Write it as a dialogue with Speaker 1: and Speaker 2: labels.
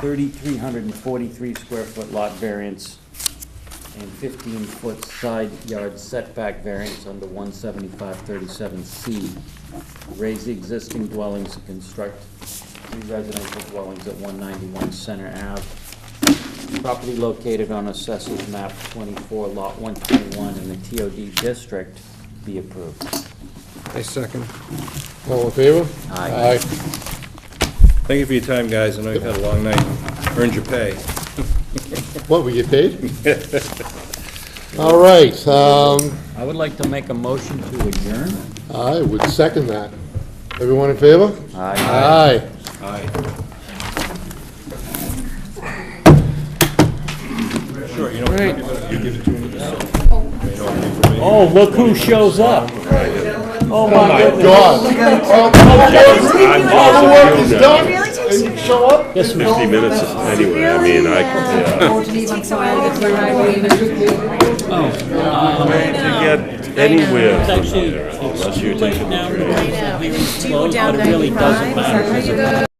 Speaker 1: thirty-three hundred and forty-three square foot lot variance and fifteen foot side yard setback variance under one seventy-five thirty-seven C. Raise the existing dwellings and construct three residential dwellings at one ninety-one Center Ave. Property located on assessors map twenty-four, lot one twenty-one in the TOD district be approved.
Speaker 2: I second.
Speaker 3: All in favor?
Speaker 1: Aye.
Speaker 4: Thank you for your time, guys. I know you've had a long night. Earned your pay.
Speaker 3: What, we get paid? All right, um,
Speaker 1: I would like to make a motion to adjourn.
Speaker 3: I would second that. Everyone in favor? Aye.
Speaker 4: Aye. Sure, you know, what? you better- you give it to him.
Speaker 1: Oh, look who shows up. Oh, my goodness.
Speaker 3: God. All the work is done,
Speaker 5: Really takes
Speaker 3: and you show up?
Speaker 1: Yes, ma'am.
Speaker 6: 50 minutes is- anyway, I mean, I, yeah.
Speaker 5: takes a while to get through.
Speaker 6: To get anywhere from
Speaker 7: actually-
Speaker 6: here, unless you take a
Speaker 7: now,
Speaker 5: Do you go down 95? Is that how you go?